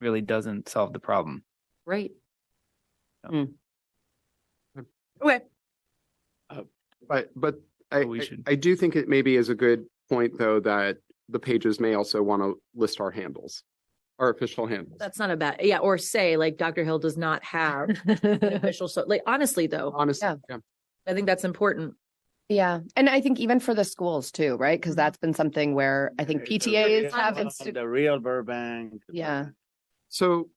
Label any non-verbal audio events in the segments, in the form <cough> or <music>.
really doesn't solve the problem. Right. Hmm. Okay. But, but I, But we I- should- I do think it maybe is a good point, though, that the pages may also want to list our handles, our official handles. That's not a bad, yeah, or say like Dr. Hill does not have <laughs> an official, so like honestly though, Honestly, Yeah. yeah. I think that's important. Yeah. And I think even for the schools too, right? Because Mm-hmm. Mhm. that's been something where I think Yeah, it's a PTAs real have. Burbank, insti- The real Burbank. Yeah. So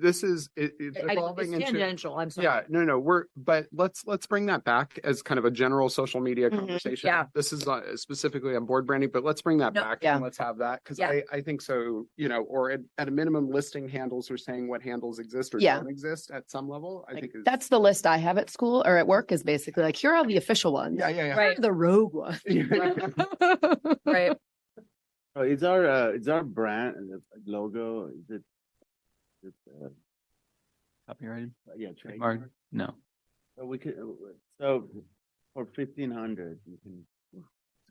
this is, it, it's I- I- evolving It's into. tangential, I'm sorry. Yeah, no, no, we're, but let's, let's bring that back as kind of a general social media Mhm. conversation. Yeah. This is uh, specifically on board branding, but let's bring that No, back yeah. and let's have that, because Yeah. I, I think so, you know, or at, at a minimum listing handles or saying what handles exist or Yeah. don't exist at some level, I like, think. is- That's the list I have at school or at work is basically like, here are the official ones. Yeah, yeah, yeah. <laughs> <laughs> Here are The rogue ones. Right, Oh, is our, uh, is our brand uh, logo, is it? is it, uh, Copyrighted? Yeah, Trademark. trademark. No. So we could, uh, so for fifteen hundred, you can.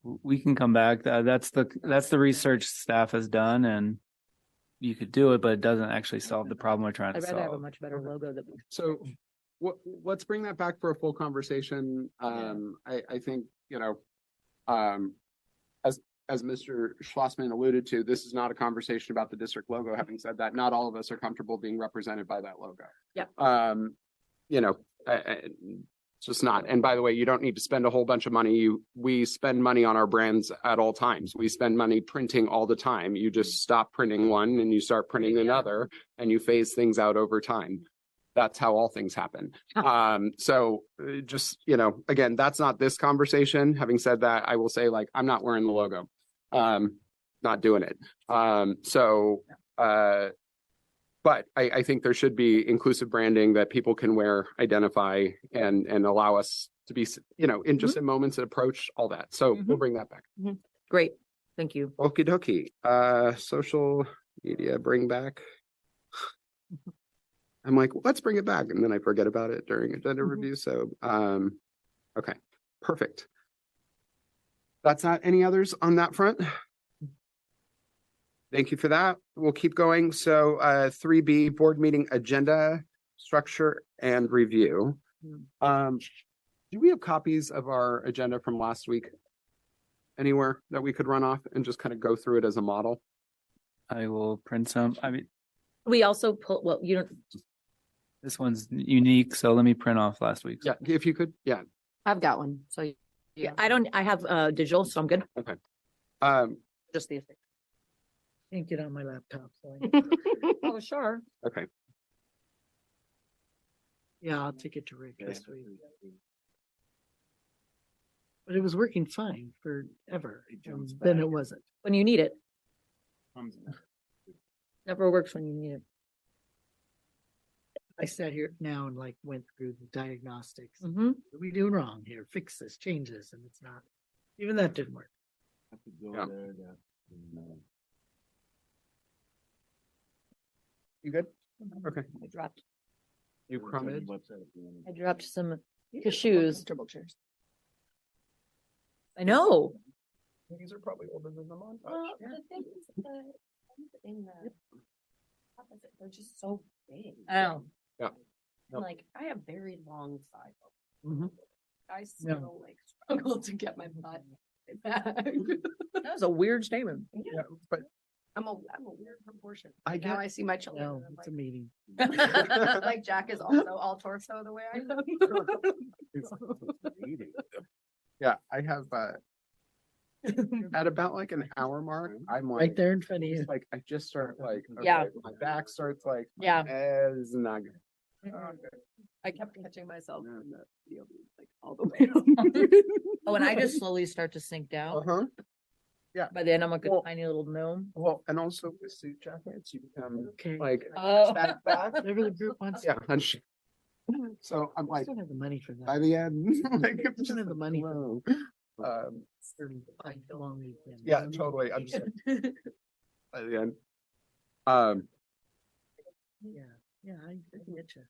W- We can come back. Tha- That's the, that's the research staff has done and you could do it, but it doesn't actually solve the problem we're trying to I'd rather have a solve. much better logo than. So what, let's bring that back for a full conversation. Um, I, I think, you know, um, as, as Mr. Schlossman alluded to, this is not a conversation about the district logo. Having said that, not all of us are comfortable being represented by that logo. Yep. Um, you know, I, I, it's just not. And by the way, you don't need to spend a whole bunch of money. You, we spend money on our brands at all times. We spend money printing all the time. You just stop printing one and you start printing another and you phase things out over time. That's how all things happen. Huh. Um, so uh, just, you know, again, that's not this conversation. Having said that, I will say like, I'm not wearing the logo. Um, not doing it. Um, so, uh, but I, I think there should be inclusive branding that people can wear, identify, and and allow us to be, s- you know, in just in moments approach all that. So we'll bring that back. Great, thank you. Okie dokie. Uh, social media bring back. I'm like, let's bring it back, and then I forget about it during agenda Mhm. review. So, um, okay, perfect. That's not any others on that front. Thank you for that. We'll keep going. So, uh, three B board meeting agenda structure and review. Um, do we have copies of our agenda from last week? Anywhere that we could run off and just kind of go through it as a model? I will print some. I mean, We also pull, well, you don't, this one's unique, so let me print off last week's. Yeah, if you could, yeah. I've got one. So you- yeah, I don't, I have uh digital, so I'm good, Um, just the. Can't get on my laptop, <laughs> so. I- Oh, sure. okay, Yeah, I'll take it to Rick this week. But it was working fine forever. It and jumps Then back. it wasn't. When you need it, comes in. never works when you need it. I sat here now and like went through the diagnostics. Mm. What Mhm. are we doing wrong here? Fix this, change this, and it's not. Even that didn't work. Have to go Yeah. there, that, you know. you good? Okay. I dropped, You It's on the crumbled. website if you wanna- I dropped some Yeah, cashews. Comfortable chairs. I know. These are probably older than the montage. Uh, Well, the thing is, the ones in the opposite, they're just so big. Oh. Yep. And, Like, I have very long Mm-hmm. thigh. Mhm. I still like struggle to get my butt <laughs> back. That was a weird statement. Yeah, but I'm a, I'm a weird proportion. Now I get- I see my children. No, and I'm it's a meeting. <laughs> Like like Jack is also all torso the way I am. It's- it's <laughs> eating. <laughs> yeah, I have, uh, at about like an hour mark, I'm like. Right there in front of you. just, Like, I just start like. Yeah. okay, My back starts like, Yeah. eh, this is not good. Oh, I kept catching myself No, no. like all <laughs> the way up. Oh, and I <laughs> just slowly start to sink down. Uh-huh. By then I'm like a Well- tiny little gnome. Well, and also with suit jackets, you become Okay. like. Oh. back, back. Whatever the group wants. Yeah. and sh- So I'm I like, don't have the money for that. by the end, <laughs> like, I it's don't just, have the money for whoa. Um, like a long weekend. Yeah, totally. I'm <laughs> just. like, By the end. Um, Yeah, yeah, I I get you.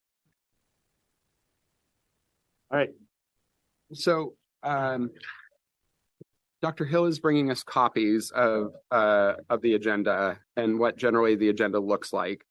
All right, So, um, Dr. Hill is bringing us copies of, uh, of the agenda and what generally the agenda looks like.